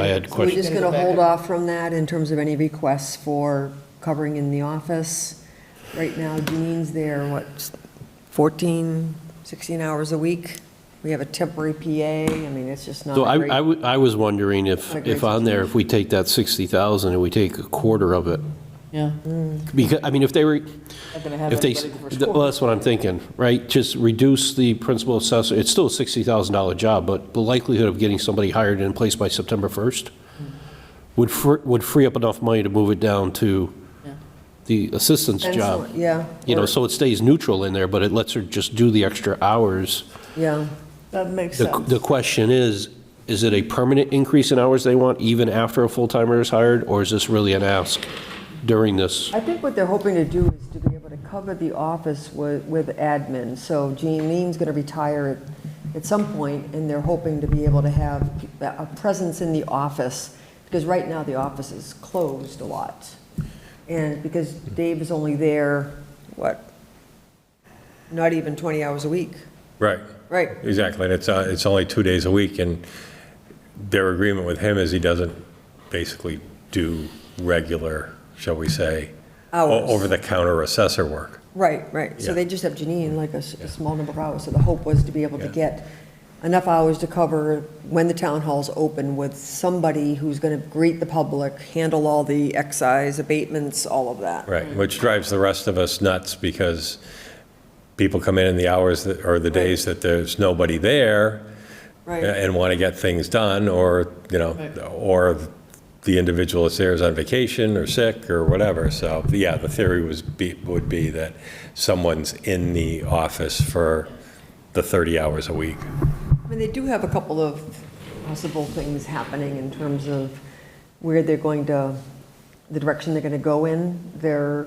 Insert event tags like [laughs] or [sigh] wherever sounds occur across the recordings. I had We're questions. just going to hold off from that in terms of any requests for covering in the office. Right now, Jean's there, what, 14, 16 hours a week? We have a temporary PA, I mean, it's just not So I, a I great. w- I was wondering if, Not a if great on there, if we take that 60,000 and we take a quarter of it, Yeah. because, I mean, if they were, Not gonna have if they, anybody for well, school. that's what I'm thinking, right? Just reduce the principal assessor, it's still a $60,000 job, but the likelihood of getting somebody hired and in place by September 1st Hmm. would, fr- would free up enough money to move it down to Yeah. the assistant's Depends job. on- Yeah. You know, or- so it stays neutral in there, but it lets her just do the extra hours. Yeah, That makes The, sense. the question is, is it a permanent increase in hours they want even after a full-timer is hired? Or is this really an ask during this? I think what they're hoping to do is to be able to cover the office with, with admin. So Jean Lean's going to retire at, at some point, and they're hoping to be able to have a presence in the office, because right now the office is closed a lot. And because Dave is only there, what, not even 20 hours a week? Right, Right, exactly. And it's, uh, it's only two days a week, and their agreement with him is he doesn't basically do regular, shall we say, o- Hours. over-the-counter assessor work. right, right. So Yeah. they just have Janine, like a, s- a small number of hours. So the hope was to be able to Yeah. get enough hours to cover when the town hall's open with somebody who's going to greet the public, handle all the excise abatements, all of that. Right, which drives the rest of us nuts because people come in in the hours that, or the days that there's nobody there Right, and want to get things done, or, you know, or the individual that's there is on vacation or sick or whatever. So, yeah, the theory was, be- would be that someone's in the office for the 30 hours a week. I mean, they do have a couple of possible things happening in terms of where they're going to, the direction they're going to go in. There,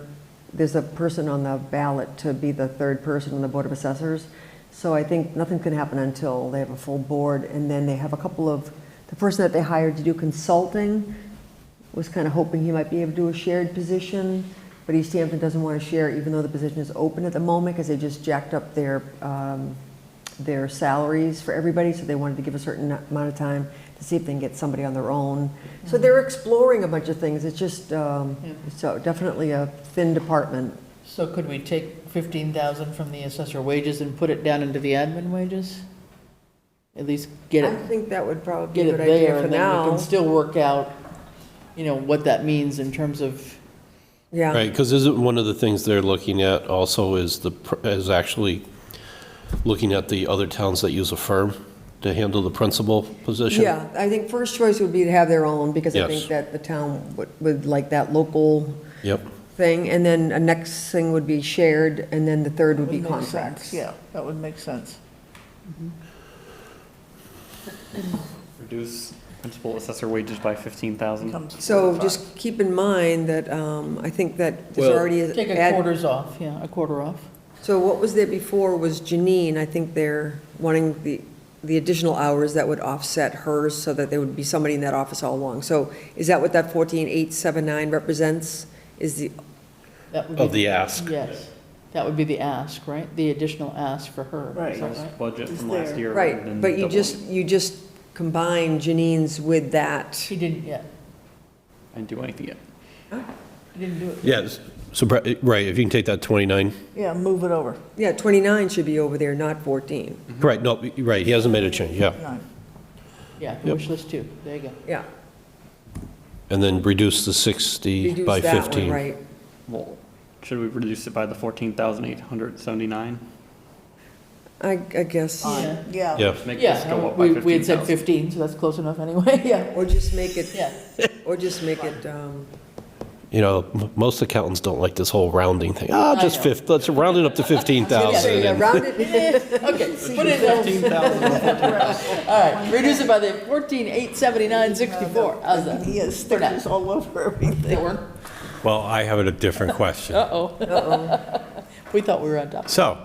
there's a person on the ballot to be the third person on the Board of Assessors. So I think nothing can happen until they have a full board, and then they have a couple of, the person that they hired to do consulting was kind of hoping he might be able to do a shared position, but East Hampton doesn't want to share, even though the position is open at the moment, because they just jacked up their, um, their salaries for everybody, so they wanted to give a certain amount of time to see if they can get somebody on their own. So they're exploring a bunch of things, it's just, um, Yeah. so definitely a thin department. So could we take 15,000 from the assessor wages and put it down into the admin wages? At least get I it, think that would probably get be a it good idea there, for and then we now. can still work out, you know, what that means in terms of, Yeah, Right, because isn't one of the things they're looking at also is the, pr- is actually looking at the other towns that use a firm to handle the principal position? yeah, I think first choice would be to have their own, because I Yes. think that the town would, would like that local Yep, thing, and then a next thing would be shared, and then the third would be Would make sense, contracts. Yeah, that would make sense. Reduce principal assessor wages by fifteen thousand. Comes- So just keep in mind that, um, I think that there's Well- already. a- Take a ad- quarters off, yeah, a quarter off. So what was there before was Janine, I think they're wanting the, the additional hours that would offset hers, so that there would be somebody in that office all along. So is that what that fourteen eight seven nine represents? Is the, That would of be- the ask. Yes, that would be the ask, right? The additional ask for her. is Right. that right? Budget It's from last there. year. rather right, than but you doubling just, you just combine Janine's with that. She didn't yet, it. And do anything yet. she didn't do it. Yes, so, Bre- right, if you can take that 29, Yeah, move it over. Yeah, twenty-nine should be over there, not fourteen. right, no, right, he hasn't made a change, yeah. Nine. Yeah, the Yep. wish list too, there you go. Yeah, And then reduce the 60 reduce by that one, 15. Right. Well, should we reduce it by the fourteen thousand eight hundred seventy-nine? I, I guess, Yeah. Yeah, Yeah, Make this go Yeah, up by we, we fifteen had said thousand. 15, so that's close enough anyway, [laughs] yeah, or just make it, yeah. or just make it, um, you know, m- most accountants don't like this whole rounding thing. Ah, I just know. 5, let's round it up to [laughs] Yeah, 15,000. yeah, and- round it, Eh, Okay, put it in, Fifteen thousand. all right, reduce it by the 14, 879, 64, how's that? he has stickers all over everything. That work? Well, I have a different question. Uh-oh, [laughs] we thought we were on top. So,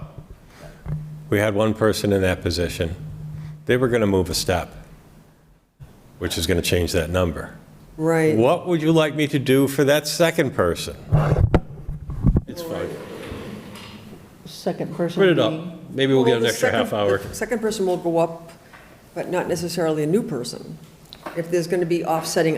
we had one person in that position. They were going to move a step, which is going to change that number. right. What would you like me to do for that second person? It's fine. Second person. Print it up. being- Maybe we'll get Well, an the extra half second- hour. the Second person will go up, but not necessarily a new person. if there's going to be offsetting